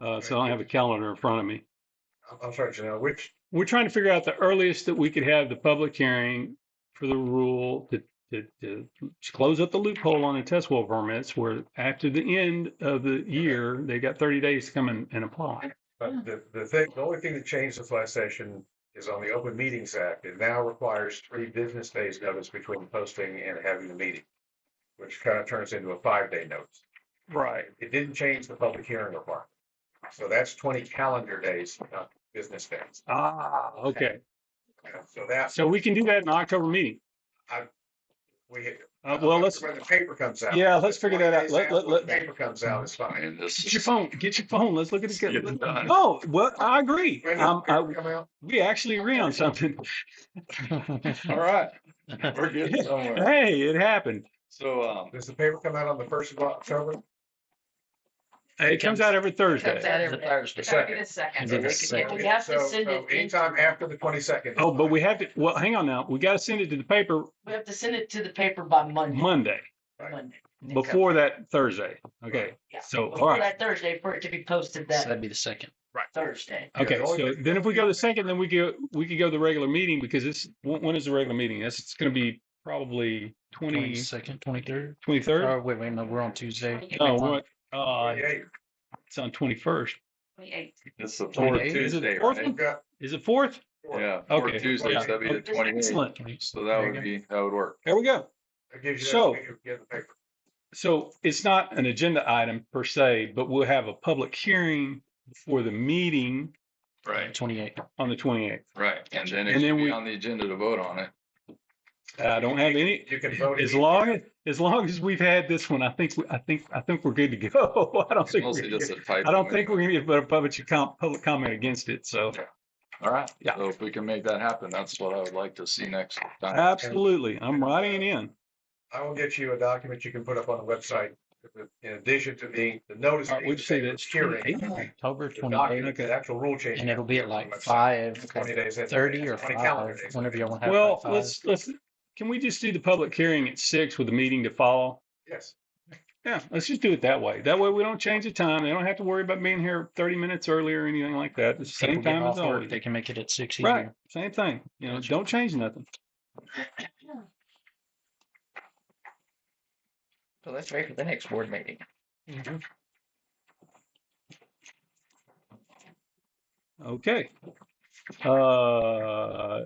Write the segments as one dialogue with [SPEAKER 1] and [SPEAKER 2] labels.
[SPEAKER 1] Uh, so I don't have a calendar in front of me.
[SPEAKER 2] I'm- I'm sorry, Janelle, which,
[SPEAKER 1] We're trying to figure out the earliest that we could have the public hearing for the rule to, to, to close up the loophole on the test well permits where after the end of the year, they got thirty days to come and, and apply.
[SPEAKER 2] but uh, the, the thing, the only thing that changed this last session is on the Open Meetings Act. It now requires three business days notice between posting and having the meeting, which kind of turns into a five-day notice.
[SPEAKER 1] Right.
[SPEAKER 2] It didn't change the public hearing requirement. So that's twenty calendar days, not business days.
[SPEAKER 1] Ah, okay.
[SPEAKER 2] Yeah, So that's,
[SPEAKER 1] So we can do that in October meeting.
[SPEAKER 2] we.
[SPEAKER 1] Uh, well, let's,
[SPEAKER 2] When the paper comes out.
[SPEAKER 1] yeah, let's figure that out. Let, let,
[SPEAKER 2] When the
[SPEAKER 1] let,
[SPEAKER 2] Paper comes out, it's fine.
[SPEAKER 3] And this
[SPEAKER 1] Get your
[SPEAKER 3] is,
[SPEAKER 1] phone. Get your phone. Let's look at
[SPEAKER 3] Get it
[SPEAKER 1] the.
[SPEAKER 3] done.
[SPEAKER 1] Oh, well, I agree.
[SPEAKER 2] When
[SPEAKER 1] Um,
[SPEAKER 2] the
[SPEAKER 1] I,
[SPEAKER 2] paper come out,
[SPEAKER 1] we actually agree on something.
[SPEAKER 3] all right, we're getting somewhere.
[SPEAKER 1] Hey, it happened.
[SPEAKER 3] So, um,
[SPEAKER 2] Does the paper come out on the first of October?
[SPEAKER 1] It comes out every
[SPEAKER 4] Comes
[SPEAKER 1] Thursday.
[SPEAKER 4] out
[SPEAKER 5] It's a
[SPEAKER 4] every
[SPEAKER 5] Thursday.
[SPEAKER 4] Gotta get a second.
[SPEAKER 5] Is it the
[SPEAKER 4] Yeah,
[SPEAKER 5] second?
[SPEAKER 4] We have to
[SPEAKER 2] So-
[SPEAKER 4] send
[SPEAKER 2] so
[SPEAKER 4] it,
[SPEAKER 2] Anytime
[SPEAKER 4] in-
[SPEAKER 2] after the twenty-second.
[SPEAKER 1] Oh, but we have to, well, hang on now. We got to send it to the paper
[SPEAKER 4] we have to send it to the paper by Monday.
[SPEAKER 1] Monday
[SPEAKER 4] Monday.
[SPEAKER 1] before that Thursday. Okay.
[SPEAKER 4] Yeah.
[SPEAKER 1] So, all
[SPEAKER 4] Before
[SPEAKER 1] right.
[SPEAKER 4] that Thursday for it to be posted
[SPEAKER 5] So
[SPEAKER 4] that
[SPEAKER 5] that'd be the second.
[SPEAKER 4] Thursday.
[SPEAKER 1] Okay. So then if we go to the second, then we go, we could go to the regular meeting because it's, when, when is the regular meeting? That's, it's going to be probably twenty,
[SPEAKER 5] Twenty-second, twenty-third?
[SPEAKER 1] twenty-third?
[SPEAKER 5] Oh, wait, wait, no, we're on Tuesday.
[SPEAKER 1] Oh, what? Uh, it's on twenty-first.
[SPEAKER 4] Twenty-eighth.
[SPEAKER 3] it's the
[SPEAKER 5] Twenty
[SPEAKER 3] fourth
[SPEAKER 5] eighth,
[SPEAKER 1] is it
[SPEAKER 3] Tuesday,
[SPEAKER 1] fourth?
[SPEAKER 3] right?
[SPEAKER 1] Is it fourth?
[SPEAKER 3] Yeah,
[SPEAKER 1] Okay.
[SPEAKER 3] fourth Tuesday, so that'd be the
[SPEAKER 1] Okay.
[SPEAKER 3] twenty eighth.
[SPEAKER 1] Excellent.
[SPEAKER 3] So that
[SPEAKER 5] There you
[SPEAKER 3] would
[SPEAKER 5] go.
[SPEAKER 3] be, that would work.
[SPEAKER 1] There we go.
[SPEAKER 2] That gives you that
[SPEAKER 1] So-
[SPEAKER 2] week to get the paper.
[SPEAKER 1] So it's not an agenda item per se, but we'll have a public hearing for the meeting
[SPEAKER 3] Right,
[SPEAKER 5] Twenty-eighth.
[SPEAKER 1] on the twenty-eighth.
[SPEAKER 3] right. And then
[SPEAKER 1] And
[SPEAKER 3] it
[SPEAKER 1] then
[SPEAKER 3] should
[SPEAKER 1] we-
[SPEAKER 3] be on the agenda to vote on it.
[SPEAKER 1] I don't have any,
[SPEAKER 2] You can vote.
[SPEAKER 1] as
[SPEAKER 2] it.
[SPEAKER 1] long, as as long as we've had this one, I think, we- I think, I think we're good to go. I don't
[SPEAKER 3] It's
[SPEAKER 1] think,
[SPEAKER 3] mostly
[SPEAKER 1] we're-
[SPEAKER 3] just a typo.
[SPEAKER 1] I don't think we're gonna put a public, com- public comment against it. So
[SPEAKER 3] All right,
[SPEAKER 1] Yeah.
[SPEAKER 3] so if we can make that happen, that's what I would like to see next time.
[SPEAKER 1] absolutely, I'm writing it in.
[SPEAKER 2] I will get you a document you can put up on the website. In addition to the, the notice.
[SPEAKER 1] All right, we'll
[SPEAKER 2] being
[SPEAKER 1] say
[SPEAKER 2] paper
[SPEAKER 1] that's
[SPEAKER 2] Hearing.
[SPEAKER 1] 28th.
[SPEAKER 5] October
[SPEAKER 2] The document,
[SPEAKER 5] twenty-eighth,
[SPEAKER 2] the actual rule change.
[SPEAKER 5] and it'll be at
[SPEAKER 2] on the
[SPEAKER 5] like
[SPEAKER 2] website.
[SPEAKER 5] five
[SPEAKER 2] Twenty days. in.
[SPEAKER 5] thirty or
[SPEAKER 2] Twenty calendar
[SPEAKER 5] five,
[SPEAKER 2] days.
[SPEAKER 5] whenever y'all want to have.
[SPEAKER 1] Well,
[SPEAKER 5] like five.
[SPEAKER 1] let's, let's, can we just do the public hearing at six with the meeting to follow?
[SPEAKER 2] Yes.
[SPEAKER 1] Yeah, let's just do it that way. That way we don't change the time. They don't have to worry about being here thirty minutes early or anything like that. It's the
[SPEAKER 5] People
[SPEAKER 1] same
[SPEAKER 5] getting
[SPEAKER 1] time as
[SPEAKER 5] off work,
[SPEAKER 1] always.
[SPEAKER 5] They can make it at six
[SPEAKER 1] Right,
[SPEAKER 5] easier.
[SPEAKER 1] same thing. You know, don't change nothing.
[SPEAKER 6] So let's wait for the next board meeting.
[SPEAKER 1] Okay. Uh,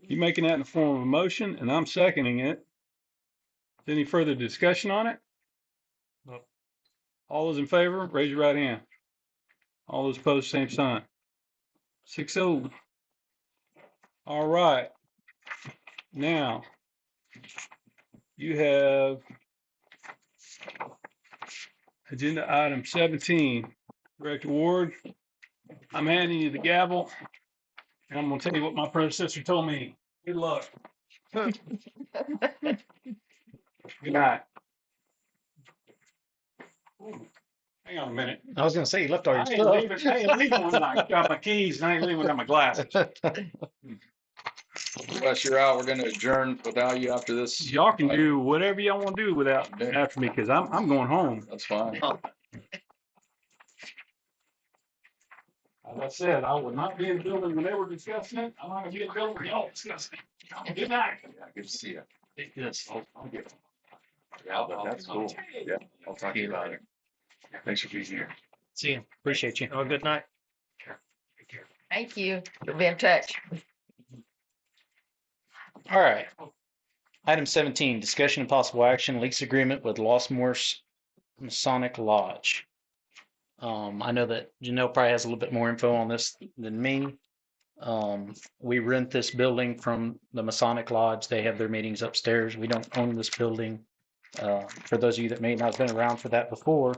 [SPEAKER 1] you making that in the form of a motion and I'm seconding it. Any further discussion on it? All those in favor, raise your right hand. All those opposed, same sign. Six oh. All right. Now. You have. Agenda item seventeen, Director Ward. I'm handing you the gavel. And I'm gonna tell you what my predecessor told me. Good luck. Good night. Hang on a minute.
[SPEAKER 5] I was gonna say, you left
[SPEAKER 1] I ain't leaving, I ain't leaving without my- without my keys and I ain't leaving without my glasses.
[SPEAKER 3] Unless you're out, we're gonna adjourn without you after this.
[SPEAKER 1] Y'all can do whatever y'all want to do without, after me, because I'm, I'm going home.
[SPEAKER 3] That's fine.
[SPEAKER 1] As I said, I would not be in the building when they were discussing it. I'm not gonna be in the building when y'all discuss it. Good night.
[SPEAKER 3] Yeah, Good to see you.
[SPEAKER 5] Yes.
[SPEAKER 3] Yeah, but that's cool. Yeah, I'll talk to you about it. Thanks for being here.
[SPEAKER 5] See you. Appreciate you. Have a good night.
[SPEAKER 6] Thank you. We'll be in touch.
[SPEAKER 5] All right. Item seventeen, discussion and possible action, lease agreement with Lostmore's Masonic Lodge. Um, I know that Janelle probably has a little bit more info on this than me. Um, we rent this building from the Masonic Lodge. They have their meetings upstairs. We don't own this building. Uh, for those of you that may not have been around for that before,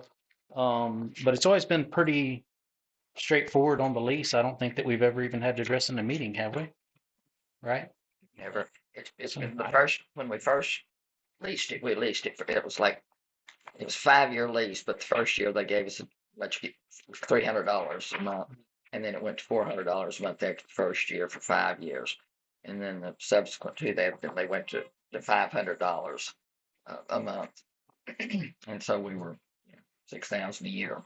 [SPEAKER 5] um, but it's always been pretty straightforward on the lease. I don't think that we've ever even had to address in a meeting, have we? Right?
[SPEAKER 6] Never. It's, it's been the first, when we first leased it, we leased it for, it was like, it was five-year lease, but the first year they gave us a much, three hundred dollars a month. And then it went to four hundred dollars a month after the first year for five years. And then the subsequent two, they, then they went to, to five hundred dollars a, a month. And so we were six thousand a year